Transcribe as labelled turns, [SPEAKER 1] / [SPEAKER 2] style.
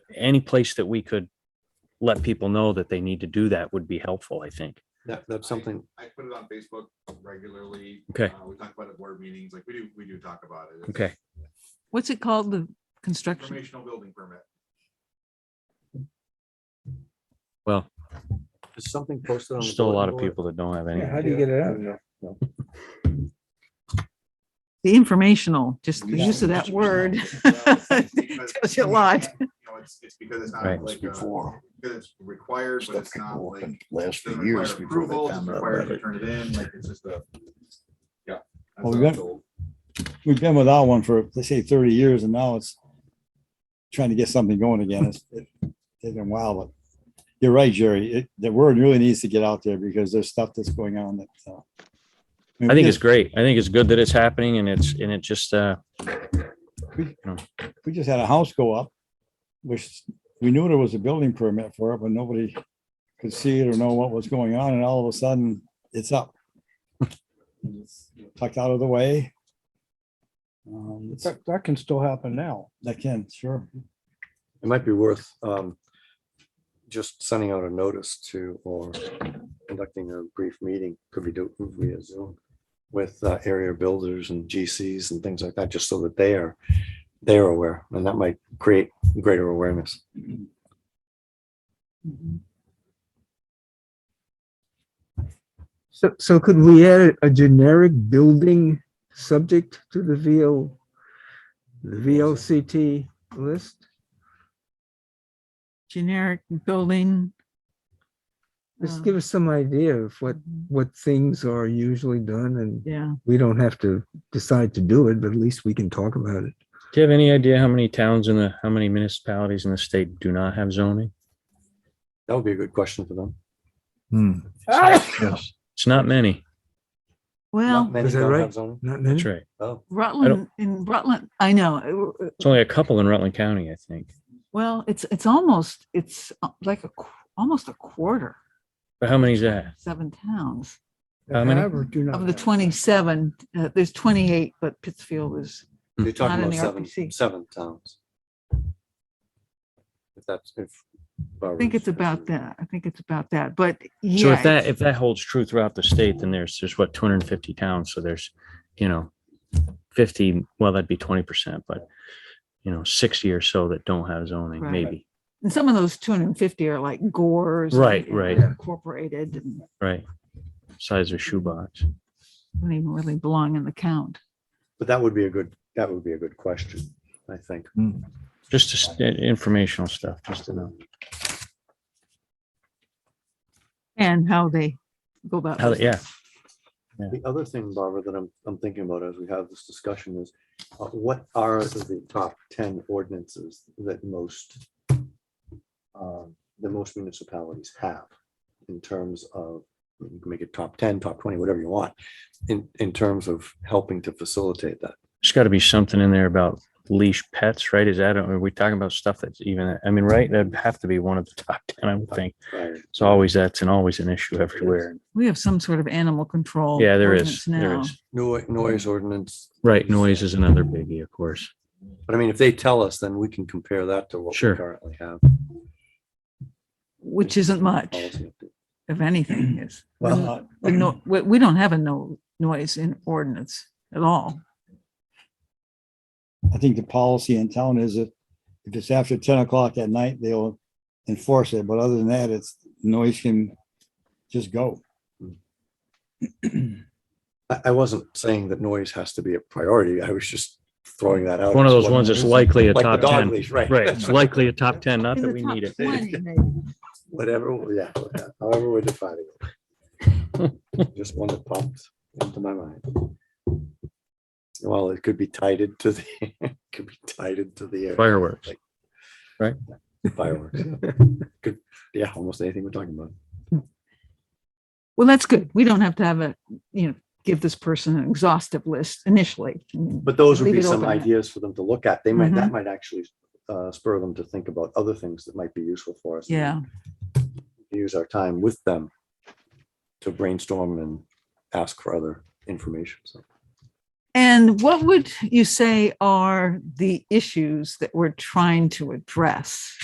[SPEAKER 1] any place that we could let people know that they need to do that would be helpful, I think.
[SPEAKER 2] That, that's something,
[SPEAKER 3] I put it on Facebook regularly.
[SPEAKER 1] Okay.
[SPEAKER 3] Uh, We talk about it at board meetings, like we do, we do talk about it. It's
[SPEAKER 1] Okay.
[SPEAKER 4] What's it called? The construction?
[SPEAKER 3] Informational building permit.
[SPEAKER 1] Well,
[SPEAKER 2] there's something posted on.
[SPEAKER 1] there's
[SPEAKER 2] the
[SPEAKER 1] still a lot
[SPEAKER 2] bulletin
[SPEAKER 1] of
[SPEAKER 2] board.
[SPEAKER 1] people that don't have any.
[SPEAKER 5] Yeah, How do you get it out?
[SPEAKER 4] The informational, just the use of that word.
[SPEAKER 3] uh,
[SPEAKER 4] Tells you a lot.
[SPEAKER 3] You know, it's, it's because it's not
[SPEAKER 1] Right.
[SPEAKER 3] like, uh,
[SPEAKER 6] Before,
[SPEAKER 3] because it's required, but
[SPEAKER 6] stuff
[SPEAKER 3] it's not
[SPEAKER 6] people
[SPEAKER 3] like.
[SPEAKER 6] working last
[SPEAKER 3] doesn't
[SPEAKER 6] for
[SPEAKER 3] require
[SPEAKER 6] years before
[SPEAKER 3] approval,
[SPEAKER 6] they
[SPEAKER 3] doesn't
[SPEAKER 6] found out
[SPEAKER 3] require
[SPEAKER 6] about
[SPEAKER 3] you to
[SPEAKER 6] it.
[SPEAKER 3] Turn it in, like, it's just a, yeah. that's
[SPEAKER 5] Well, we
[SPEAKER 3] how
[SPEAKER 5] got-
[SPEAKER 3] it's old.
[SPEAKER 5] We've been without one for, they say thirty years and now it's trying to get something going again. It's it- it's been wild, but you're right, Jerry. It, the word really needs to get out there because there's stuff that's going on that. uh,
[SPEAKER 1] I think it's great. I think it's good that it's happening and it's, and it just, uh,
[SPEAKER 5] We just had a house go up, which we knew there was a building permit for it, but nobody could see it or know what was going on. And all of a sudden, it's up. Tucked out of the way. Um, it's-
[SPEAKER 7] That, that can still happen now.
[SPEAKER 5] That can, sure.
[SPEAKER 2] It might be worth, um, just sending out a notice to, or conducting a brief meeting, could be do via Zoom with uh, area builders and GCs and things like that, just so that they are, they are aware, and that might create greater awareness.
[SPEAKER 7] So, so could we add a generic building subject to the VO, the VLCT list?
[SPEAKER 4] Generic building.
[SPEAKER 7] Just
[SPEAKER 4] uh,
[SPEAKER 7] give us some idea of what, what things are usually done and
[SPEAKER 4] Yeah,
[SPEAKER 7] we don't have to decide to do it, but at least we can talk about it.
[SPEAKER 1] do you have any idea how many towns in the, how many municipalities in the state do not have zoning?
[SPEAKER 2] That would be a good question for them.
[SPEAKER 7] Hmm,
[SPEAKER 2] Yes.
[SPEAKER 1] It's not many.
[SPEAKER 4] well,
[SPEAKER 7] Is that right? not many?
[SPEAKER 1] That's right.
[SPEAKER 2] Oh,
[SPEAKER 4] Rutland, in Rutland, I know. uh, uh,
[SPEAKER 1] It's only a couple in Rutland County, I think.
[SPEAKER 4] Well, it's, it's almost, it's uh, like a, qu- almost a quarter,
[SPEAKER 1] But how many's that?
[SPEAKER 4] seven towns.
[SPEAKER 1] How many?
[SPEAKER 7] Have or do not
[SPEAKER 4] Of the
[SPEAKER 7] have?
[SPEAKER 4] twenty-seven, uh, there's twenty-eight, but Pittsfield is,
[SPEAKER 2] you're
[SPEAKER 4] Not
[SPEAKER 2] talking
[SPEAKER 4] in
[SPEAKER 2] about
[SPEAKER 4] the
[SPEAKER 2] seven,
[SPEAKER 4] RPC.
[SPEAKER 2] seven towns. If that's, if.
[SPEAKER 4] I think it's about that. I think it's about that, but yeah.
[SPEAKER 1] So if that,
[SPEAKER 4] it's-
[SPEAKER 1] if that holds true throughout the state, then there's, there's what, two hundred and fifty towns, so there's, you know, fifty, well, that'd be twenty percent, but, you know, sixty or so that don't have zoning,
[SPEAKER 4] Right.
[SPEAKER 1] maybe,
[SPEAKER 4] And some of those two hundred and fifty are like gores.
[SPEAKER 1] Right,
[SPEAKER 4] and
[SPEAKER 1] right.
[SPEAKER 4] Incorporated and
[SPEAKER 1] right? Size of shoebox.
[SPEAKER 4] don't even really belong in the count.
[SPEAKER 2] But that would be a good, that would be a good question, I think.
[SPEAKER 1] Just to s- uh, informational stuff, just to know
[SPEAKER 4] And how they go about.
[SPEAKER 1] how, yeah,
[SPEAKER 4] business.
[SPEAKER 2] The other thing, Barbara, that I'm, I'm thinking about as we have this discussion is, uh, what are the top ten ordinances that most, um, that most municipalities have in terms of, you can make it top ten, top twenty, whatever you want, in, in terms of helping to facilitate that.
[SPEAKER 1] there's got to be something in there about leash pets, right? Is that, are we talking about stuff that's even, I mean, right? That'd have to be one of the top ten, I would think.
[SPEAKER 2] Right.
[SPEAKER 1] It's always, that's an, always an issue everywhere.
[SPEAKER 4] We have some sort of animal control.
[SPEAKER 1] Yeah, there is,
[SPEAKER 4] ordinance
[SPEAKER 1] there
[SPEAKER 4] now.
[SPEAKER 1] is.
[SPEAKER 2] Noi- Noise ordinance,
[SPEAKER 1] Right, noise is another biggie, of course.
[SPEAKER 2] but I mean, if they tell us, then we can compare that to what we
[SPEAKER 1] Sure.
[SPEAKER 2] currently have.
[SPEAKER 4] Which isn't much,
[SPEAKER 2] Policy update.
[SPEAKER 4] if anything is.
[SPEAKER 5] Well, uh,
[SPEAKER 4] We no, we, we don't have a no noise in ordinance at all.
[SPEAKER 5] I think the policy in town is that if it's after ten o'clock at night, they'll enforce it, but other than that, it's noise can just go.
[SPEAKER 2] I, I wasn't saying that noise has to be a priority. I was just throwing that out.
[SPEAKER 1] One of
[SPEAKER 2] as
[SPEAKER 1] those ones that's likely a
[SPEAKER 2] Like the
[SPEAKER 1] top
[SPEAKER 2] dog
[SPEAKER 1] ten.
[SPEAKER 2] leash, right?
[SPEAKER 1] Right, it's likely a top ten, not
[SPEAKER 4] In
[SPEAKER 1] that
[SPEAKER 4] the
[SPEAKER 1] we
[SPEAKER 4] top
[SPEAKER 1] need it.
[SPEAKER 4] 20 maybe.
[SPEAKER 2] Whatever, yeah, however we're defining it. Just one that popped into my mind. Well, it could be tied into the, it could be tied into the
[SPEAKER 1] Fireworks.
[SPEAKER 2] uh, fireworks. Could, yeah, almost anything we're talking about.
[SPEAKER 4] Well, that's good. We don't have to have a, you know, give this person an exhaustive list initially. I mean,
[SPEAKER 2] But those would
[SPEAKER 4] Leave
[SPEAKER 2] be
[SPEAKER 4] it
[SPEAKER 2] some
[SPEAKER 4] open. Mm-hmm.
[SPEAKER 2] ideas for them to look at. They might, that might actually uh, spur them to think about other things that might be useful for us.
[SPEAKER 4] Yeah,
[SPEAKER 2] use our time with them to brainstorm and ask for other information. So
[SPEAKER 4] and what would you say are the issues that we're trying to address?